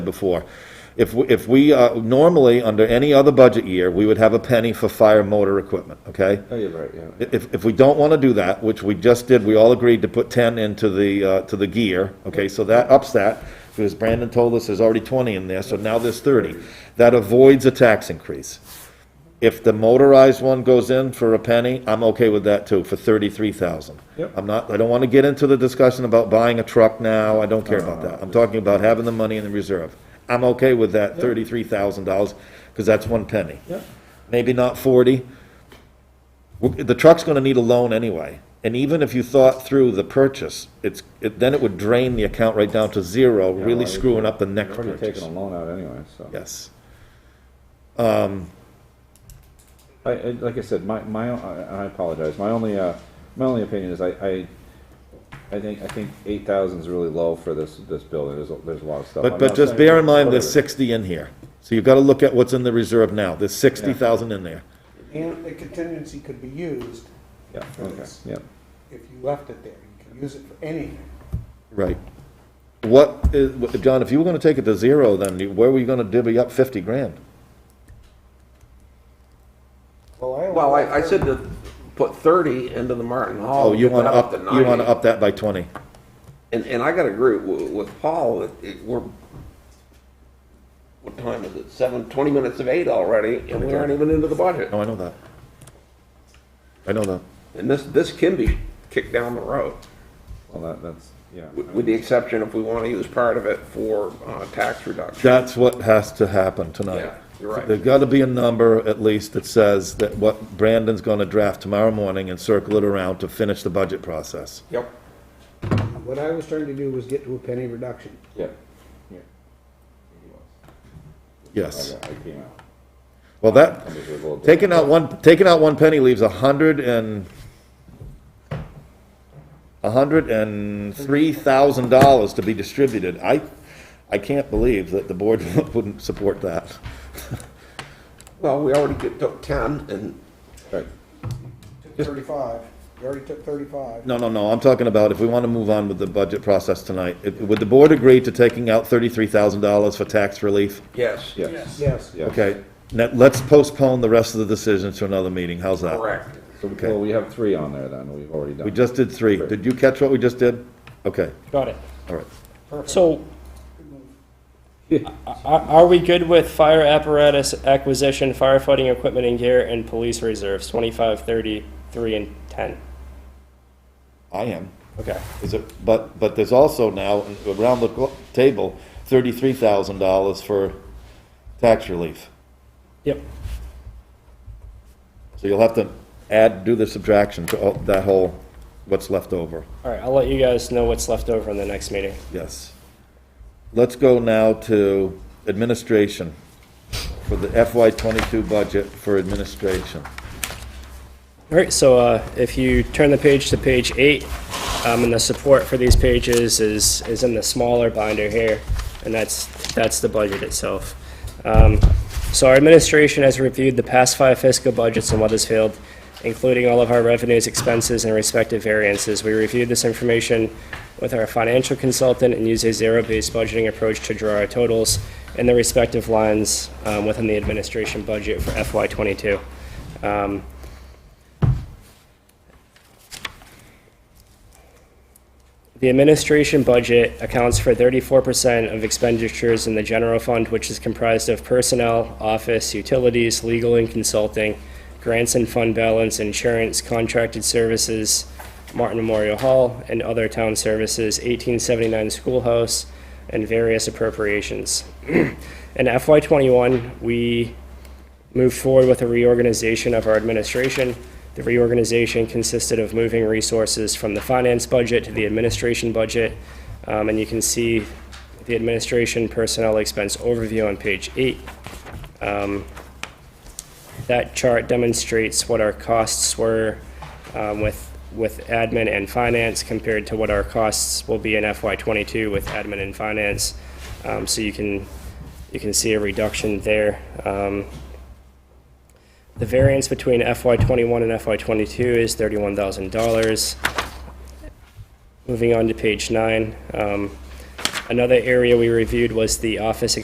before. If, we- if we, uh, normally, under any other budget year, we would have a penny for fire motor equipment, okay? Oh, you're right, yeah. If, if we don't want to do that, which we just did, we all agreed to put 10 into the, uh, to the gear, okay? So that ups that, because Brandon told us there's already 20 in there, so now there's 30. That avoids a tax increase. If the motorized one goes in for a penny, I'm okay with that too, for 33,000. Yep. I'm not, I don't want to get into the discussion about buying a truck now, I don't care about that. I'm talking about having the money in the reserve. I'm okay with that $33,000, because that's one penny. Yep. Maybe not 40, w- the truck's gonna need a loan anyway, and even if you thought through the purchase, it's, it, then it would drain the account right down to zero, really I- screwing up the next You're already taking purchase. a loan out anyway, so. Yes. I, I, like I said, my, my, I I apologize, my only, uh, my only opinion is I, I, I think, I think eight thousand is really low for this, this building, there's, a- there's a lot of stuff. But, Oh, I'm but not just saying- bear in mind, whatever. there's sixty in here, so you've gotta look at what's in the reserve now, there's sixty thousand in there. And the contingency could be used Yeah, for okay, this. yeah. if you left it there. You can use it for anything. Right. What is, what- John, if you were gonna take it to zero, then you- where were you gonna divvy up fifty grand? Well, I, I said to put thirty into the Martin Hall. Oh, you get that wanna up, to you wanna 90. up that by twenty. And, and I gotta agree with, with Paul, that it, we're, what time is it? Seven, twenty minutes of eight already, and we aren't even into the budget. No, I know that. I know that. And this, this can be kicked down the road, Well, that, that's, yeah. with, with the exception if we wanna use part of it for, uh, tax reduction. That's what has to happen tonight. Yeah, you're right. There's got to be a number, at least, that says that what Brandon's going to draft tomorrow morning and circle it around to finish the budget process. Yep. What I was trying to do was get to a penny reduction. Yeah. Yeah. I Yes. got- I came out. Well, that, I'm just a little- taking out one, taking out one penny leaves a hundred and, a hundred and three thousand dollars to be distributed. I, I can't believe that the board wouldn't support that. Well, we already get- took ten, and Right. Took Thirty-five, you already took thirty-five. No, no, no, I'm talking about if we want to move on with the budget process tonight, if- would the board agree to taking out thirty-three thousand dollars for tax relief? yes, Yes, Yes. yeah. Okay, now, let's postpone the rest of the decision to another meeting, how's that? correct. So, well, we have three on there then, we've already done. We just did three, did you catch what we just did? Okay, Got it. all right. So, are, are we good with fire apparatus acquisition, firefighting equipment and gear, and police reserves, 25, 30, 3, and 10? I am. Okay. Is it, but, but there's also now, around the clo- table, thirty-three thousand dollars for tax relief. Yep. So you'll have to add, do the subtraction to all- that whole, what's left over. All right, I'll let you guys know what's left over in the next meeting. Yes. Let's go now to administration, for the FY twenty-two budget for administration. All right, so uh, if you turn the page to page eight, um, and the support for these pages is, is in the smaller binder here, and that's, that's the budget itself. Um, So our administration has reviewed the past five fiscal budgets in Weathersfield, including all of our revenues, expenses, and respective variances. We reviewed this information with our financial consultant and used a zero-based budgeting approach to draw our totals and the respective lines um, within the administration budget for FY '22. Um, The administration budget accounts for thirty-four percent of expenditures in the general fund, which is comprised of personnel, office, utilities, legal and consulting, grants and fund balance, insurance, contracted services, Martin Memorial Hall, and other town services, eighteen seventy-nine schoolhouse, and various appropriations. In FY twenty-one, we moved forward with a reorganization of our administration. The reorganization consisted of moving resources from the finance budget to the administration budget. Um, And you can see the administration personnel expense overview on page eight. Um, That chart demonstrates what our costs were um, with, with admin and finance compared to what our costs will be in FY '22 with admin and finance. Um, So you can, you can see a reduction there. Um, the variance between FY '21 and FY '22 is $31,000. Moving on to page nine, um, Another area we reviewed was the office